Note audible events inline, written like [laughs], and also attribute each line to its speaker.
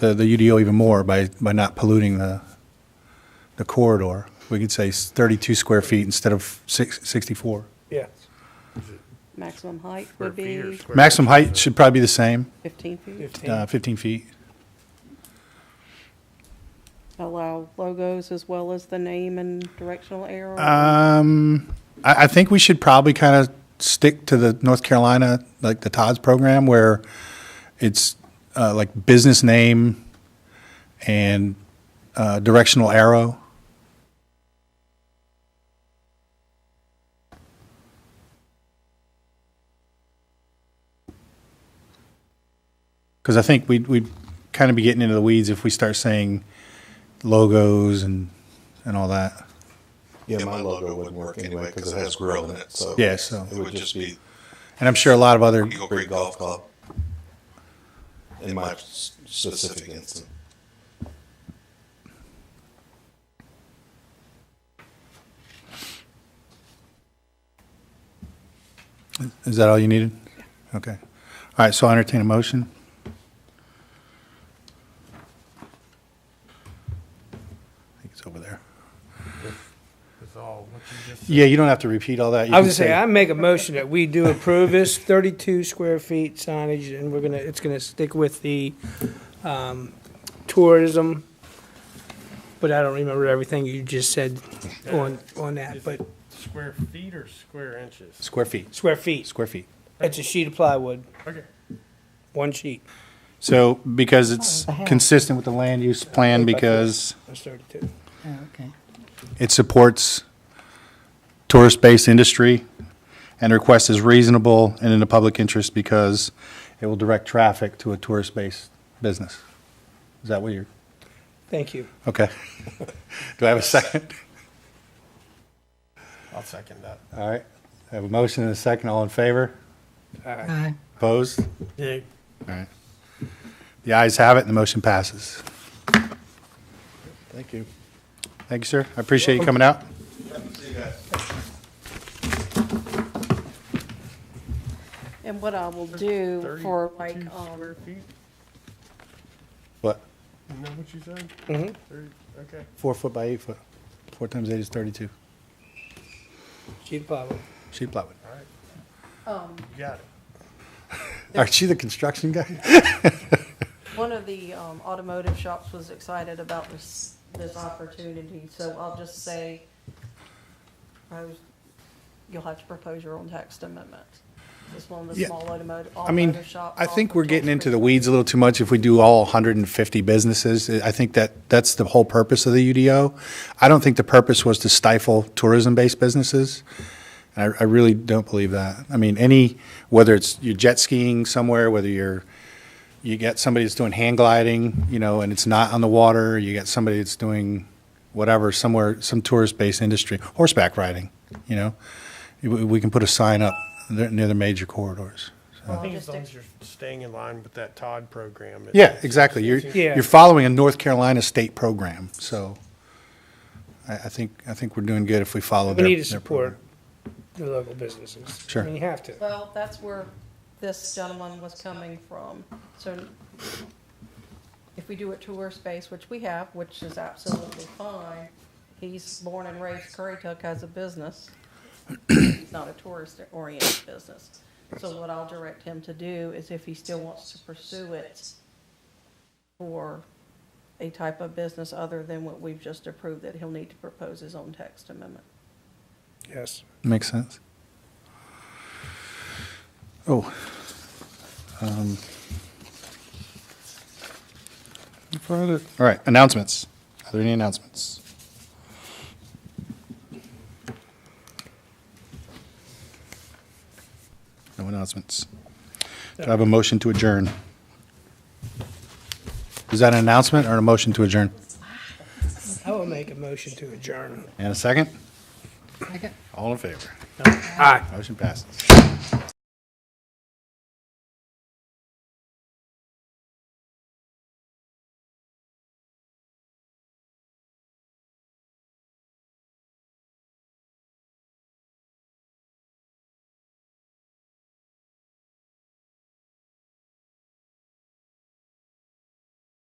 Speaker 1: the, the UDO even more by, by not polluting the, the corridor. We could say s- 32 square feet instead of six- 64.
Speaker 2: Yeah.
Speaker 3: Maximum height
Speaker 4: Square
Speaker 3: would
Speaker 4: feet or
Speaker 3: be
Speaker 4: square-
Speaker 1: Maximum height should probably be the same,
Speaker 3: 15 feet.
Speaker 1: uh, 15
Speaker 2: Fifteen.
Speaker 1: feet.
Speaker 3: Allow logos as well as the name and directional arrow.
Speaker 1: Um, I, I think we should probably kind of stick to the North Carolina, like the Todd's program, where it's uh, like business name and uh, directional arrow. Because I think we'd, we'd kind of be getting into the weeds if we start saying logos and, and all that.
Speaker 5: Yeah, my logo wouldn't work anyway because it has grill in it, so.
Speaker 1: Yeah, so-
Speaker 5: It would just be
Speaker 1: And I'm sure a lot of other
Speaker 5: Eagle Creek Golf Club in my s- specific instance.
Speaker 1: Is that all you needed? Okay. All right, so I entertain a motion. I think it's over there.
Speaker 4: That's all, what you just
Speaker 1: Yeah, you don't have to repeat all that. You
Speaker 2: I was
Speaker 1: can
Speaker 2: gonna say, I make a motion that we do approve this thirty-two square feet signage, and we're gonna, it's gonna stick with the, um, tourism. But I don't remember everything you just said on, on that, but
Speaker 4: Square feet or square inches?
Speaker 1: Square feet,
Speaker 2: square feet,
Speaker 1: square feet.
Speaker 2: it's a sheet of plywood,
Speaker 4: Okay.
Speaker 2: one sheet,
Speaker 1: So because it's consistent with the land use plan, because
Speaker 2: that's thirty-two.
Speaker 6: Okay.
Speaker 1: it supports tourist-based industry and the request is reasonable and in the public interest because it will direct traffic to a tourist-based business. Is that what you're?
Speaker 2: Thank you.
Speaker 1: Okay. [laughs] Do I have a second?
Speaker 4: I'll second that.
Speaker 1: All right. I have a motion and a second. All in favor?
Speaker 6: Aye.
Speaker 1: Opposed? All
Speaker 4: Yeah,
Speaker 1: right. The ayes have it and the motion passes.
Speaker 7: Thank you.
Speaker 1: Thank you, sir. I appreciate you coming out.
Speaker 3: And what I will do for like,
Speaker 4: 32
Speaker 3: um,
Speaker 4: Square feet,
Speaker 1: What?
Speaker 4: isn't that what you said?
Speaker 2: Mhm.
Speaker 1: Mm-hmm.
Speaker 4: Thirty- Okay.
Speaker 1: Four foot by eight foot. Four times eight is 32.
Speaker 2: Sheet of plywood.
Speaker 1: Sheet plywood.
Speaker 4: You got it.
Speaker 1: Aren't you the construction guy?
Speaker 3: one of the um, automotive shops was excited about this, this opportunity, so I'll just say, propose- you'll have to propose your own text amendment. This one, the
Speaker 1: Yeah.
Speaker 3: small automotive,
Speaker 1: I mean,
Speaker 3: automotive shop.
Speaker 1: I
Speaker 3: off
Speaker 1: think
Speaker 3: of
Speaker 1: we're
Speaker 3: North
Speaker 1: getting into
Speaker 3: Creek
Speaker 1: the weeds a little too much if we do all 150 businesses. I think that, that's the whole purpose of the UDO. I don't think the purpose was to stifle tourism-based businesses. I, I really don't believe that. I mean, any, whether it's you're jet skiing somewhere, whether you're, you got somebody that's doing hang gliding, you know, and it's not on the water, you got somebody that's doing whatever, somewhere, some tourist-based industry, horseback riding, you know? We, we can put a sign up there- near the major corridors.
Speaker 4: I think
Speaker 3: just
Speaker 4: as long as you're staying in line with that Todd program. it-
Speaker 1: Yeah, exactly. You're,
Speaker 2: Yeah.
Speaker 1: you're following a North Carolina state program, so I, I think, I think we're doing good if we follow
Speaker 2: We
Speaker 1: their.
Speaker 2: need to
Speaker 1: their
Speaker 2: support
Speaker 1: program.
Speaker 2: the local businesses.
Speaker 1: Sure.
Speaker 2: I mean, you have to.
Speaker 3: Well, that's where this gentleman was coming from. So if we do a tour space, which we have, which is absolutely fine, he's born and raised Currituck has a business. He's not a tourist-oriented business. So what I'll direct him to do is if he still wants to pursue it for a type of business other than what we've just approved, that he'll need to propose his own text amendment.
Speaker 2: Yes.
Speaker 1: Makes sense. Oh. Um, Further, all right, announcements. Are there any announcements? No announcements. Do I have a motion to adjourn? Is that an announcement or a motion to adjourn?
Speaker 2: I will make a motion to adjourn.
Speaker 1: And a second?
Speaker 6: Second.
Speaker 1: All in favor?
Speaker 2: Aye.
Speaker 1: Motion passes.